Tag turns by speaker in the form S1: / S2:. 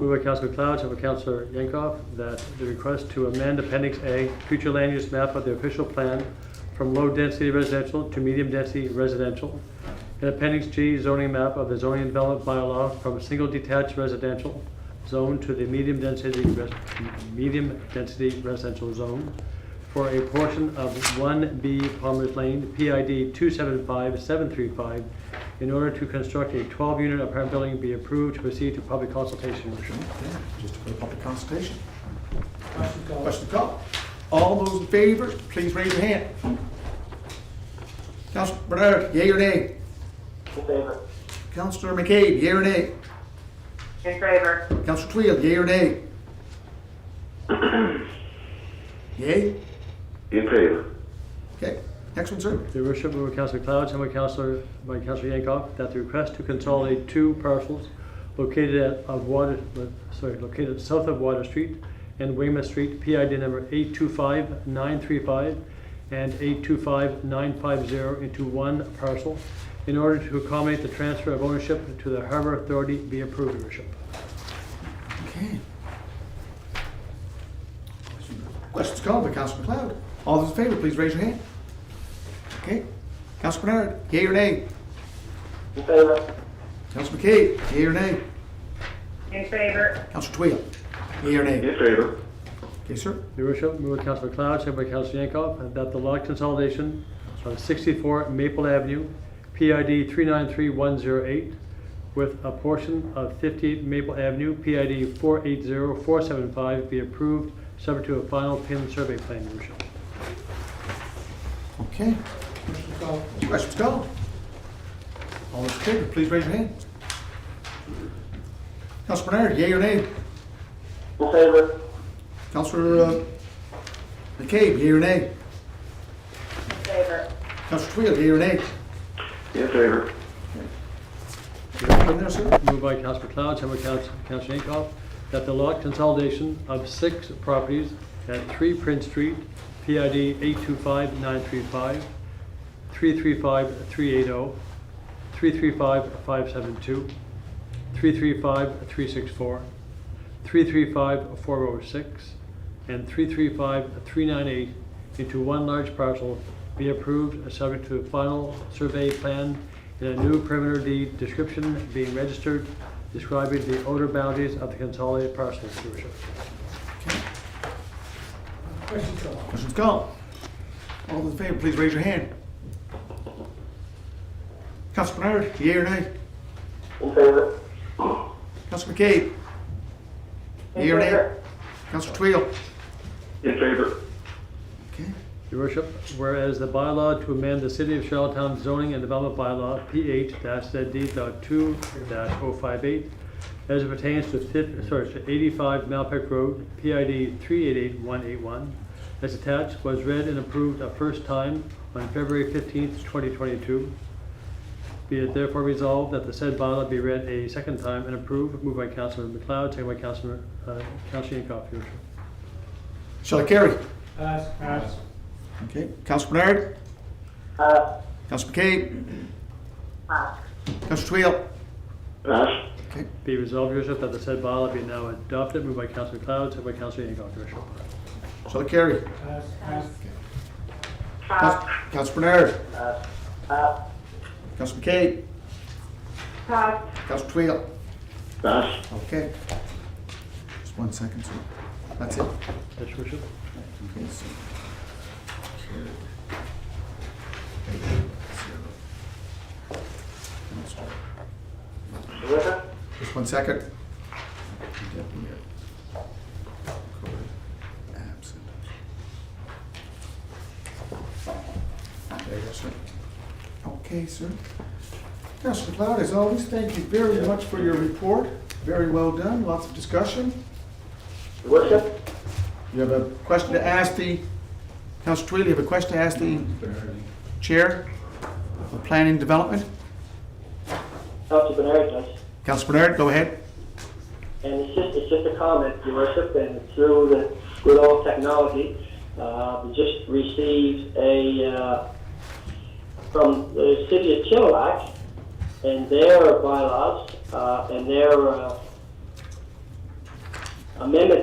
S1: Moved by Councilor McLeod, second by Councilor Yankoff, that the request to amend Appendix A, future land use map of the official plan from low-density residential to medium-density residential, and Appendix G, zoning map of the zoning development bylaw from single detached residential zone to the medium-density, res- medium-density residential zone for a portion of 1B Palmer's Lane, PID 275735, in order to construct a 12-unit apartment building be approved to proceed to public consultation. Your Worship.
S2: Okay, Just for the public consultation.
S3: Question call.
S2: Question call. All those in favor, please raise your hand. Councilor Bernard, yea or nay?
S4: In favor.
S2: Councilor McCabe, yea or nay?
S4: In favor.
S2: Councilor Twill, yea or nay? Yea?
S5: In favor.
S2: Okay, next one, sir.
S1: Your Worship, moved by Councilor Cloud, second by Councilor, by Councilor Yankoff, that the request to consolidate two parcels located at, of Water, uh, sorry, located south of Water Street and Weymouth Street, PID number 825935 and 825950 into one parcel in order to accommodate the transfer of ownership to the Harbor Authority be approved, Your Worship.
S2: Okay. Questions called by Councilor McLeod. All those in favor, please raise your hand. Okay. Councilor Bernard, yea or nay?
S4: In favor.
S2: Councilor McCabe, yea or nay?
S4: In favor.
S2: Councilor Twill, yea or nay?
S5: In favor.
S2: Okay, sir.
S1: Your Worship, move by Councilor Cloud, second by Councilor Yankoff, that the lot consolidation on 64 Maple Avenue, PID 393108, with a portion of 58 Maple Avenue, PID 480475, be approved, subject to a final pin survey plan, Your Worship.
S2: Okay. Questions called? All those in favor, please raise your hand. Councilor Bernard, yea or nay?
S4: In favor.
S2: Councilor uh, McCabe, yea or nay?
S4: In favor.
S2: Councilor Twill, yea or nay?
S5: In favor.
S2: Is that one there, sir?
S1: Moved by Councilor McLeod, second by Council- Councilor Yankoff, that the lot consolidation of six properties at 3 Prince Street, PID 825935, 335380, 335572, 335364, 335406, and 335398 into one large parcel be approved uh, subject to a final survey plan and a new perimeter deed description being registered describing the outer boundaries of the consolidated parcel, Your Worship.
S3: Question call.
S2: Questions called? All those in favor, please raise your hand. Councilor Bernard, yea or nay?
S4: In favor.
S2: Councilor McCabe,
S4: In
S2: yea or nay?
S4: favor.
S2: Councilor Twill?
S5: In favor.
S2: Okay.
S1: Your Worship, whereas the bylaw to amend the City of Charlottetown zoning and development bylaw, PH ZD two 58 as it pertains to fif, sorry, to eighty-five Malpec Road, PID three eight eight one eight one, as attached, was read and approved a first time on February fifteenth, twenty twenty-two. Be it therefore resolved that the said bylaw be read a second time and approved, moved by Councilor McLeod, second by Councilor, uh, Councilor Yankoff, Your Worship.
S2: Shall I carry?
S3: Pass. Pass.
S2: Okay. Councilor Bernard,
S4: Uh,
S2: Councilor McCabe,
S4: pass.
S2: Councilor Twill?
S5: Pass.
S2: Okay.
S1: Be resolved, Your Worship, that the said bylaw be now adopted. Moved by Councilor Cloud, second by Councilor Hancock, Your Worship.
S2: Shall I carry?
S3: Pass. Pass.
S4: Pass.
S2: Councilor Bernard,
S4: Uh, uh,
S2: Councilor McCabe,
S4: pass.
S2: Councilor Twill?
S5: Pass.
S2: Okay. Just one second, sir. That's it.
S1: Yes, Your Worship.
S2: Okay, so-
S4: In favor.
S2: Just one second. There you go, sir. Okay, sir. Councilor McLeod, as always, thank you very much for your report. Very well done, lots of discussion.
S4: Your Worship.
S2: You have a question to ask the, Councilor Twill, you have a question to ask the Chair of Planning Development?
S4: Council Bernard does.
S2: Councilor Bernard, go ahead.
S4: And it's just, it's just a comment, Your Worship, and through the good old technology, uh, we just received a, uh, from the city of Chilliwack and their bylaws, uh, and their, uh, amendment